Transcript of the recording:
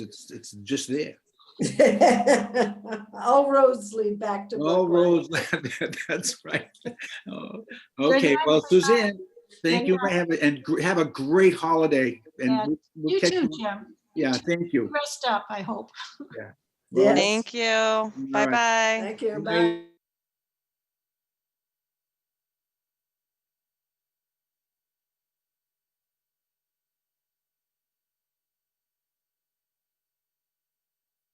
It's, it's just there. All roads lead back to All Brookline. roads, lead- that's right. Oh, night, Okay, well, Suzanne. Suzanne, thank Good you, and have a- and gr- have a great holiday. and Yeah, we'll- we'll You catch too, Jim. Yeah, thank you. Rest up, I hope. Yes. Thank you. right. Bye bye. Thank you. Good Bye. night.